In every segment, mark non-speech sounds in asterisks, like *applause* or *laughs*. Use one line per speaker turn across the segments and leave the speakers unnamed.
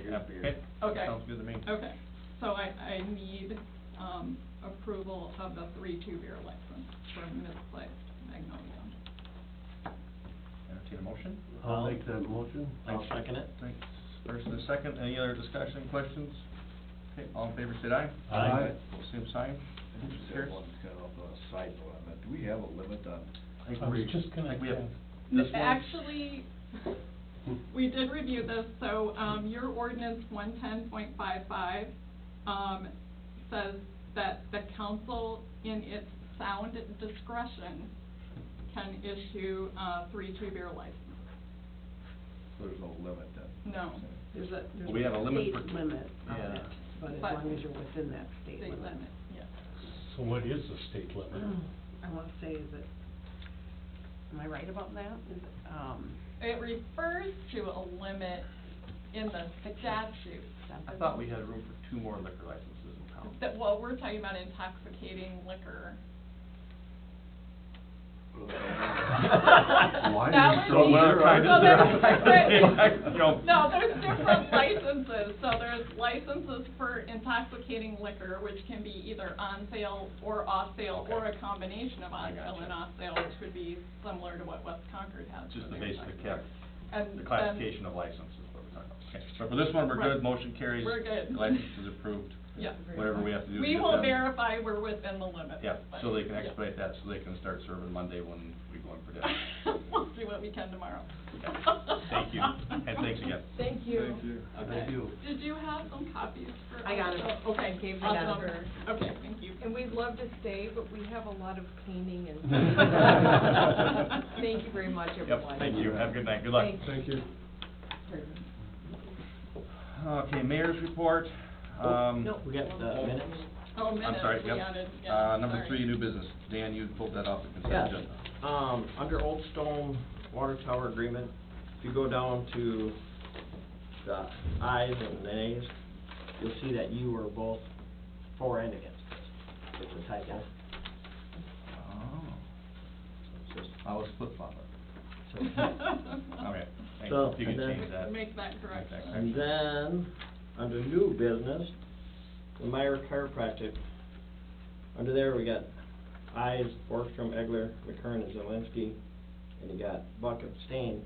Beer, beer.
Okay.
Sounds good to me.
Okay, so I, I need, um, approval of the three-two beer license for misplaced magnolia.
Entertain a motion?
I'll make that motion.
I'll second it. Thanks. First and a second, any other discussion, questions? Okay, all in favor, say aye.
Aye. Aye.
Pull same sign.
I think that
Carries.
one's kind of a side limit. Do we have a limit on?
I think
I was
we-
just gonna
I think we have-
ask.
This one? *laughs*
Actually, we did review this, so, um, your ordinance one ten point five five, um, says that the council in its sound discretion can issue, uh, three-two beer license.
So there's no limit then?
No.
There's a, there's
Well, we have a limit for-
state limit on
Yeah.
it, but as
But-
long as you're within that state
State
limit.
limit, yes.
So what is the state limit?
*clears throat* I wanna say, is it, am I right about that? Is, it, um,
It refers to a limit in the statute.
I thought we had room for two more liquor licenses in town.
That, well, we're talking about intoxicating
*laughs*
liquor.
*laughs*
Why
That
are you
would
so
be-
well
trying to
so
*laughs*
*laughs*
there's
clarify?
different-
You know.
No, there's different licenses, so there's licenses for intoxicating liquor, which can be either on sale or off sale, or a
Okay.
combination of
I
on sale
gotcha.
and off sale, which would be similar to what West Concord has.
Just
for
the
their
basic
license.
cap,
And um,
the
then-
classification of licenses, what we're talking about. Okay, so for this one, we're
Right.
good, motion carries.
We're good.
License is
*laughs*
approved.
Yeah.
Whatever we have to do. to
We
get
will
them.
verify we're within the limits.
Yeah,
but-
so they can
yeah.
expedite that, so they can start serving Monday when we go in for dinner.
*laughs* We'll do what we can tomorrow.
*laughs* Thank you, and thanks
*laughs*
again.
Thank you.
Thank
Okay.
you.
Did you have some copies for?
I got 'em.
us? Oh, Okay.
I gave them out.
awesome. Okay, thank you.
And we'd love to stay, but we have a lot of
*laughs*
*laughs*
cleaning and. Thank
Thank
you very much,
Yep,
everyone.
thank you, have a good night, good luck.
Thank
Thank you.
Okay, mayor's report, um.
No, we got the
oh,
minutes.
Oh, minutes,
I'm sorry,
we
yep.
added, yeah,
Uh, number
sorry.
three,
*laughs*
new business, Dan, you pulled that off the
Yes,
consent agenda.
um, under Old Stone Water Tower Agreement, if you go down to the ayes and nays, you'll see that you were both for and against this. It's a typo.
Oh. I was flip flopper. Okay, thanks,
So,
if you could
and then-
change that.
Make that correction.
Exactly.
And then, under new business, the Meyer Chiropractic, under there, we got Eyes, Borgstrom, Egler, McKern, and Zelinski, and you got Buck abstain.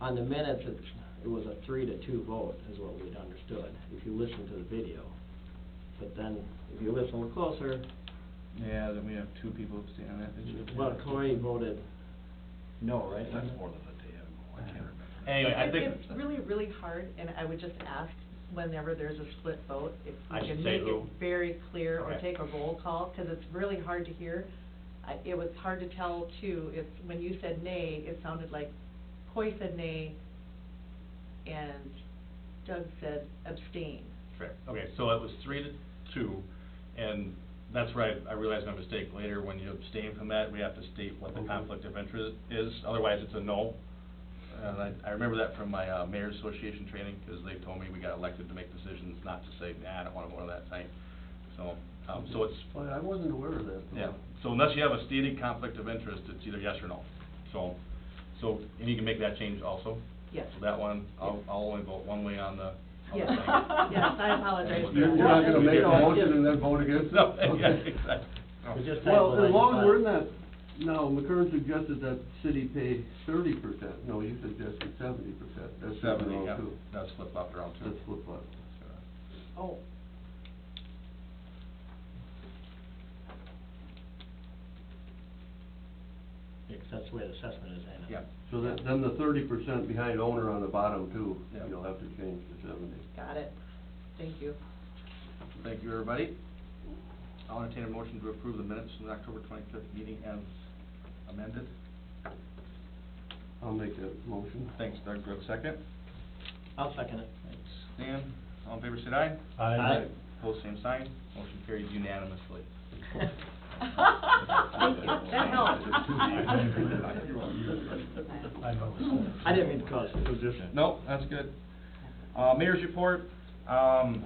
On the minutes, it, it was a three to two vote, is what we'd understood, if you listen to the video. But then, if you listen closer,
Yeah, then we have two people abstaining on that
well, Cory voted no, right?
That's more than a day ago, I can't remember.
Anyway, I think.
It's really, really hard, and I would just ask, whenever there's a split vote, if
I
you
should
can
say
make it
who.
very clear or
Okay.
take a roll call, because it's really hard to hear. I, it was hard to tell too, if, when you said nay, it sounded like Coy said nay, and Doug said
*laughs*
abstain.
Correct, okay, so it was three to two, and that's where I, I realized my mistake later, when you abstain from that, we have to state what the
Okay.
conflict of interest is, otherwise it's a no. And I, I remember that from my, uh, mayor's association training, 'cause they told me we got elected to make decisions, not to say, nah, I don't wanna go to that tonight. So, um, so it's,
Well, I wasn't aware of that.
yeah, so unless you have a stated conflict of interest, it's either yes or no. So, so, and you can make that change also,
Yes.
so that one, I'll, I'll only vote one way on the, on the
Yes,
thing.
*laughs* yes, I apologize. for
You're you're not
that.
gonna make a motion and then vote against it?
No, *laughs* yeah,
Okay.
exactly. No.
We just-
Well, as long as we're not, now, McCurran suggested that city pay thirty percent, no, you suggested seventy percent, that's seven
Seventy,
oh
yeah,
two.
that's flip flopped around
That's
too.
flip flop.
Oh,
Because that's the way the assessment is, and.
Yeah,
So that, then the thirty percent behind owner on the bottom too,
Yeah.
you'll have to change to seventy.
got it. Thank you.
thank you, everybody. I'll entertain a motion to approve the minutes from the October twenty-fifth meeting as amended.
I'll make that motion.
Thanks, Doug, Brooke, second.
I'll second it.
Thanks, Dan. All in favor, say aye.
Aye.
Pose same sign. Motion carries unanimously.
Thank you.
*laughs*
That helps.
I didn't mean to cause it. was just.
Nope, that's good. Uh, mayor's report, um,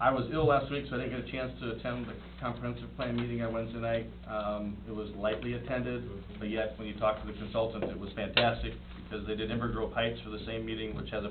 I was ill last week, so I didn't get a chance to attend the comprehensive plan meeting on Wednesday night. Um, it was lightly attended, but yet, when you talk to the consultants, it was fantastic, because they did Inver Grove Heights for the same meeting, which has a